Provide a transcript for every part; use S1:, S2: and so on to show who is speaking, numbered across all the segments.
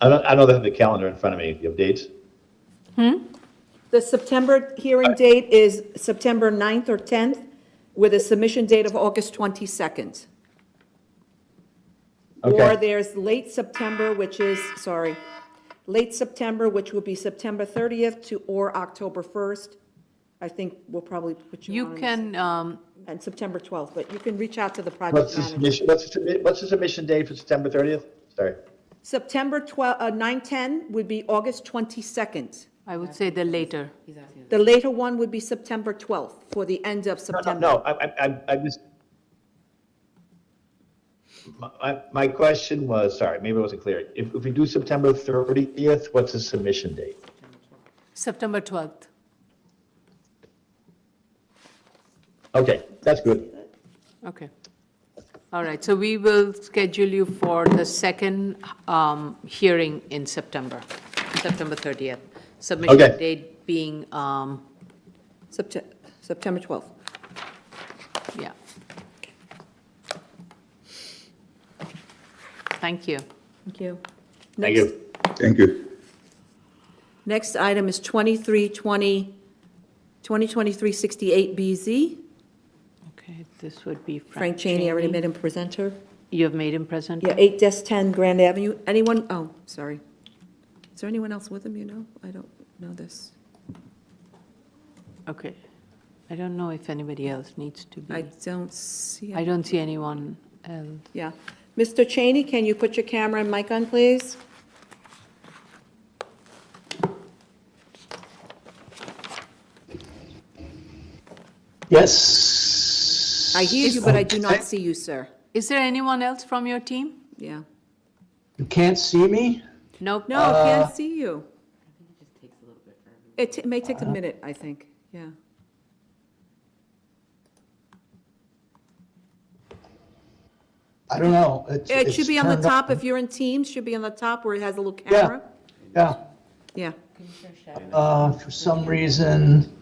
S1: I don't, I don't have the calendar in front of me, the updates.
S2: The September hearing date is September 9th or 10th, with a submission date of August 22nd. Or
S1: Okay.
S2: there's late September, which is, sorry, late September, which would be September 30th to, or October 1st. I think we'll probably put you
S3: You
S2: on.
S3: can, um,
S2: And September 12th, but you can reach out to the
S1: What's
S2: project
S1: the
S2: manager.
S1: submission, what's the, submi- what's the submission date for September 30th? Sorry.
S2: September 12, uh, 9, 10 would be August 22nd.
S3: I would say the later.
S2: The later one would be September 12th, for the end
S1: No, no,
S2: of September.
S1: no, I, I, I- I just. My- My, my question was, sorry, maybe I wasn't clear. If, if we do September 30th, what's the submission date?
S3: September 12th.
S1: Okay, that's good.
S3: Okay. All right, so we will schedule you for the second um, hearing in September, September 30th. Submission
S1: Okay.
S3: date being, um,
S2: Septe- September 12th.
S3: yeah. Thank you.
S2: Thank you.
S1: Thank
S2: Next.
S1: you.
S4: Thank you.
S2: Next item is 2320, 2023-68BZ.
S3: Okay, this would be
S2: Frank
S3: Frank
S2: Cheney, I already
S3: Chaney.
S2: made him presenter.
S3: You have made him present?
S2: Yeah, 8-10 Grand Avenue. Anyone, oh, sorry. Is there anyone else with him, you know? I don't know this.
S3: Okay. I don't know if anybody else needs to
S2: I
S3: be.
S2: don't see,
S3: I
S2: him.
S3: don't see anyone else.
S2: yeah. Mr. Cheney, can you put your camera and mic on, please?
S5: Yes.
S2: I hear you, but I do not see you, sir.
S3: Is there anyone else from your team?
S2: Yeah.
S5: You can't see me?
S3: Nope.
S2: No, I
S1: Uh,
S2: can't see you. It ta- may take a minute, I think, yeah.
S5: I don't know. It's-
S2: It
S5: it's
S2: should be on the
S5: turned up.
S2: top, if you're in Teams, should be on the top where it has a little
S5: Yeah,
S2: camera.
S5: yeah.
S2: Yeah.
S5: Uh, For some reason,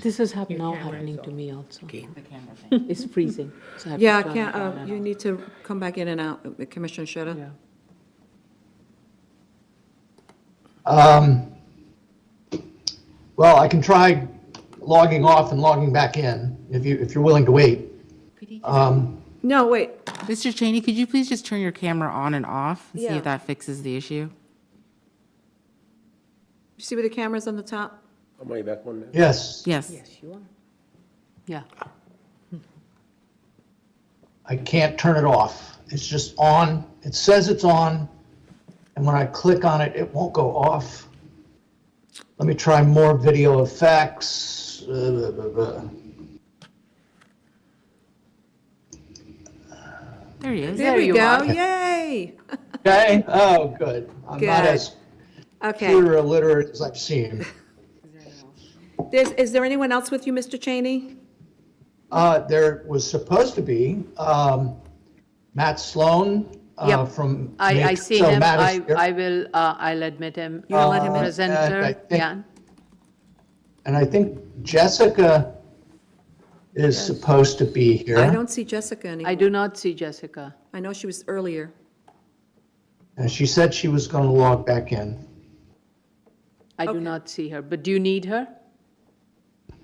S3: This is hap- now happening to me also. It's freezing. so I have to
S2: Yeah, I
S3: turn
S2: can't,
S3: it
S2: uh,
S3: on and
S2: you
S3: off.
S2: need to come back in and out, uh, Commissioner
S3: Yeah.
S2: Shetta.
S5: um, well, I can try logging off and logging back in, if you, if you're willing to wait. Um,
S2: No, wait,
S6: Mr. Cheney, could you please just turn your camera on and off and see
S2: Yeah.
S6: if that fixes the issue?
S2: you see where the camera's on the top?
S7: I'm way back one now.
S5: Yes,
S6: Yes.
S3: Yeah.
S5: I can't turn it off. It's just on. It says it's on, and when I click on it, it won't go off. Let me try more video effects. Uh, blah, blah, blah.
S6: There he is.
S2: There we
S3: you
S2: go,
S3: are.
S2: yay!
S5: Okay, oh, good. I'm not
S2: Good.
S5: as
S2: Okay,
S5: computer illiterate as I've seen.
S2: there's, is there anyone else with you, Mr. Cheney?
S5: Uh, there was supposed to be, um, Matt Sloan, uh,
S3: Yep.
S5: from.
S3: I, I
S5: Matrix.
S3: see
S5: So
S3: him.
S5: Matt is
S3: I,
S5: here.
S3: I will, uh, I'll admit him.
S2: You'll let him in?
S5: Uh, I
S3: Presenter,
S5: think-
S3: yeah.
S5: And I think Jessica is supposed to be here.
S2: I don't see Jessica
S3: I
S2: anymore.
S3: do not see Jessica.
S2: I know she was earlier.
S5: And she said she was going to log back in.
S3: I do
S2: Okay.
S3: not see her, but do you need her?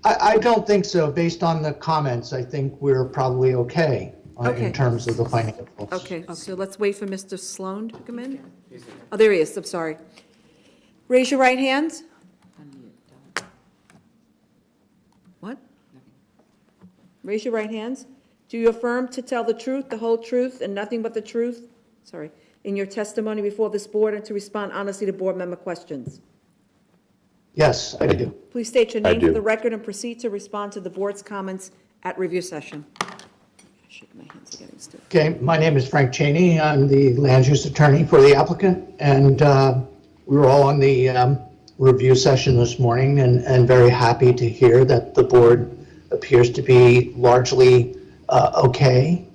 S5: I, I don't think so. Based on the comments, I think we're probably okay uh,
S2: Okay.
S5: in terms of the financials.
S2: Okay, so let's wait for Mr. Sloan to come in. Oh, there he is, I'm sorry. Raise your right hand. What? Raise your right hands. Do you affirm to tell the truth, the whole truth, and nothing but the truth? Sorry, in your testimony before this board and to respond honestly to board member questions?
S5: Yes, I do.
S2: Please state your
S1: I
S2: name for
S1: do.
S2: the record and proceed to respond to the board's comments at review session. I Shake my hands again, it's still-
S5: Okay, my name is Frank Cheney. I'm the land use attorney for the applicant, and uh, we were all on the um, review session this morning and, and very happy to hear that the board appears to be largely uh, okay